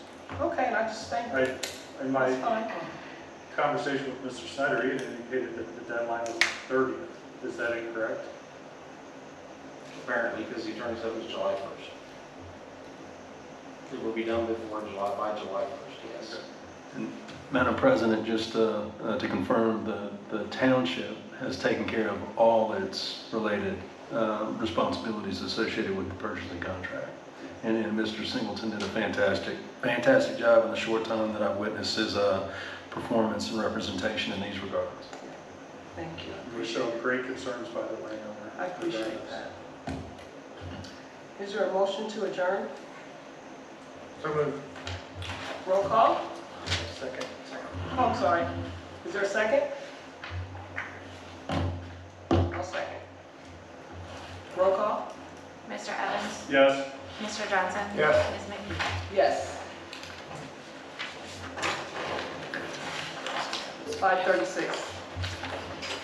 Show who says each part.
Speaker 1: Okay, and I just think
Speaker 2: I, in
Speaker 1: that's
Speaker 2: my
Speaker 1: fine.
Speaker 2: conversation with Mr. Snyder, he had indicated that the deadline was thirtieth. Is that incorrect?
Speaker 3: apparently, because the attorney said it was July 1st. It will be done before July, by July 1st, yes.
Speaker 4: Madam President, just uh, uh, to confirm, the the township has taken care of all its related uh, responsibilities associated with the purchasing contract. And and Mr. Singleton did a fantastic, fantastic job in the short time that I've witnessed his uh, performance and representation in these regards.
Speaker 1: Thank you.
Speaker 2: We showed great concerns by the landowner.
Speaker 1: I appreciate that. Is there a motion to adjourn?
Speaker 2: So moved.
Speaker 1: Roll call?
Speaker 2: Second.
Speaker 1: Oh, I'm sorry. Is there a second? I'll second. Roll call?
Speaker 5: Mr. Evans?
Speaker 2: Yes.
Speaker 5: Mr. Johnson?
Speaker 2: Yes.
Speaker 5: Ms. McKee?
Speaker 1: Yes. It's 5:36.